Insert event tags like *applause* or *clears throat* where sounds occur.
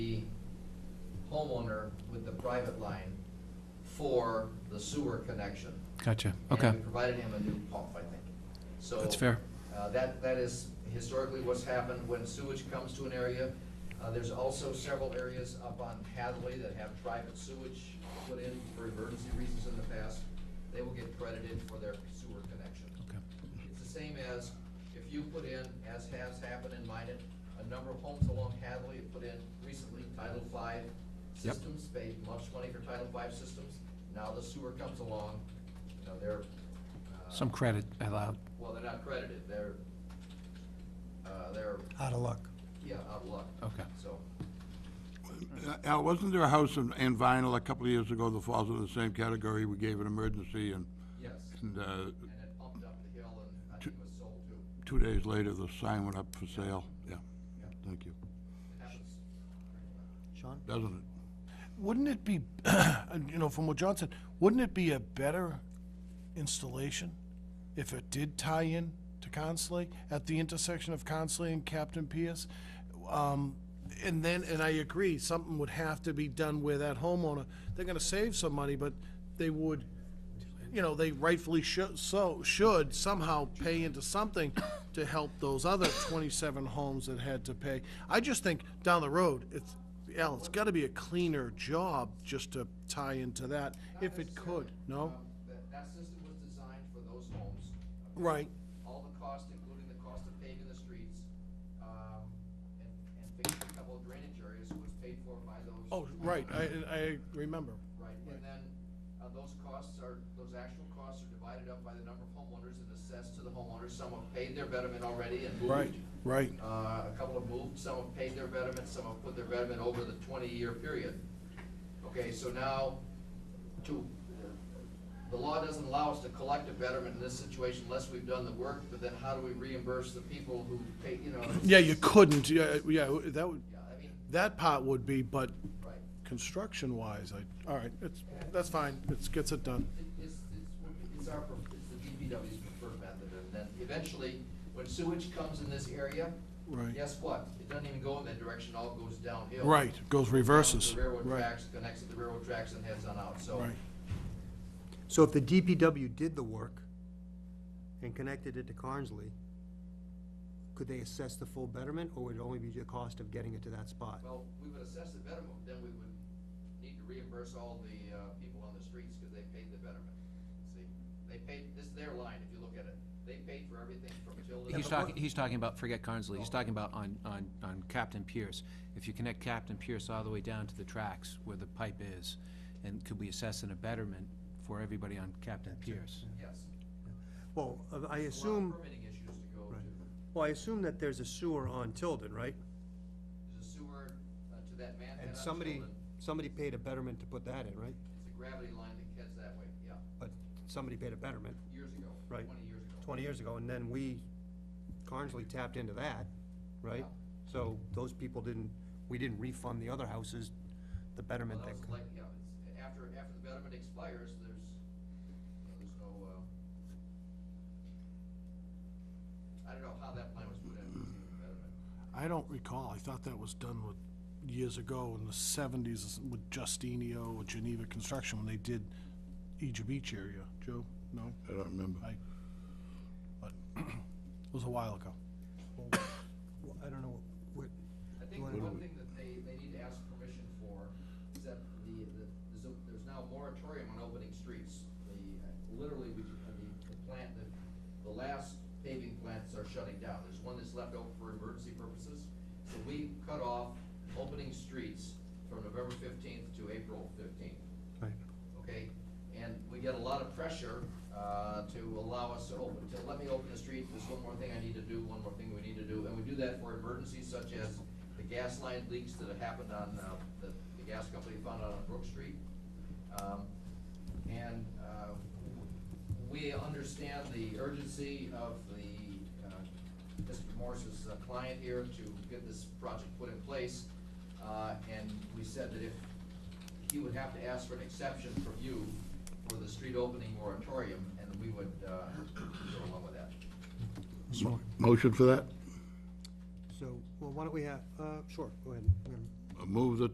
homeowner with the private line for the sewer connection. Gotcha, And okay, we provided him a new pump, I think. So. that's fair. Uh, That, that is historically what's happened when sewage comes to an area. Uh, There's also several areas up on Hathaway that have private sewage put in for emergency reasons in the past. They will get credited for their sewer connection. Okay, It's the same as if you put in, as has happened in Minot, a number of homes along Hadley have put in recently Title V Yep. systems, paid much money for Title V systems. Now the sewer comes along, you know, they're. uh, Some credit allowed. well, they're not credited, they're, uh, they're, out of luck. yeah, out of luck. Okay. So, Al, wasn't there a house in in Vinyl a couple of years ago that falls in the same category? We gave an emergency and, yes, and uh, and it pumped up the hill and I think it was sold too. two days later, the sign went up for sale. Yeah, thank you. It happens. Sean? Doesn't it? Wouldn't it be, *clears throat* and, you know, from what John said, wouldn't it be a better installation if it did tie in to Consley at the intersection of Consley and Captain Pierce? Um, and then, and I agree, something would have to be done where that homeowner, they're gonna save some money, but they would, you know, they rightfully should, so, should somehow pay into something to help those other twenty-seven homes that had to pay. I just think down the road, it's, Al, it's gotta be a cleaner job just to tie into that, if it could, no? Um, That, that system was designed for those homes. Right. All the costs, including the cost of paving the streets, um, and, and fixing a couple of drainage areas was paid for by those. Oh, right, I, I remember. Right, and then, uh, those costs are, those actual costs are divided up by the number of homeowners and assessed to the homeowners. Some have paid their betterment already and moved. Right, right. Uh, a couple have moved, some have paid their betterment, some have put their betterment over the twenty-year period. Okay, so now, to, the law doesn't allow us to collect a betterment in this situation unless we've done the work, but then how do we reimburse the people who pay, you know? Yeah, you couldn't, yeah, yeah, that would, Yeah, I mean, that part would be, but right, construction-wise, I, all right, it's, that's fine, it gets it done. It- it's, it's, it's our, pref- it's the DPW's preferred method, and then eventually, when sewage comes in this area, Right. guess what? It doesn't even go in that direction, all goes downhill. Right, goes reverses, The railroad right, tracks, connects to the railroad tracks and heads on out, so. right. So if the DPW did the work and connected it to Carnsley, could they assess the full betterment, or would it only be the cost of getting it to that spot? Well, we would assess the betterment, then we would need to reimburse all the, uh, people on the streets because they paid the betterment. See, they paid, this is their line, if you look at it. They paid for everything from Tilden. He's talking, he's talking about, forget Carnsley, he's talking about on, on, on Captain Pierce. If you connect Captain Pierce all the way down to the tracks where the pipe is, and could we assess an abatement for everybody on Captain Pierce? Yes. Well, uh, I Allow assume, Permitting issues to go to, Right. well, I assume that there's a sewer on Tilden, right? there's a sewer uh, to that manhead And on somebody, Tilden. somebody paid a betterment to put that in, right? It's a gravity line that heads that way, yeah, But somebody paid a betterment years ago, Right. twenty years ago. twenty years ago, and then we, Carnsley tapped into that, right? So those people didn't, we didn't refund the other houses the Well, betterment that that. was like, yeah, it's, after, after the betterment expires, there's, you know, there's no, uh, I don't know how that plan was put in, the betterment. I don't recall, I thought that was done with, years ago in the seventies with Justinio or Geneva Construction, when they did Egypt Beach area, Joe, no? I don't remember. I, but, *clears throat* it was a while ago. *coughs* Well, I don't know, what, I think wanna- one thing that they, they need to ask permission for is that the, the, there's a- there's now a moratorium on opening streets. The, uh, literally, we, ju- uh, the, the plant, the, the last paving plants are shutting down. There's one that's left open for emergency purposes. So we cut off opening streets from November fifteenth to April fifteenth right, okay? And we get a lot of pressure uh, to allow us to open, to let me open the street, there's one more thing I need to do, one more thing we need to do. And we do that for emergencies such as the gas line leaks that happened on, uh, the the gas company found out on Brook Street. Um, And uh, we understand the urgency of the, uh, Mr. Morse's uh, client here to get this project put in place. Uh, And we said that if he would have to ask for an exception from you for the street opening moratorium, and we would uh, go along with that. Mo- Motion for that? so, well, why don't we have, uh, sure, go ahead. Madam Move that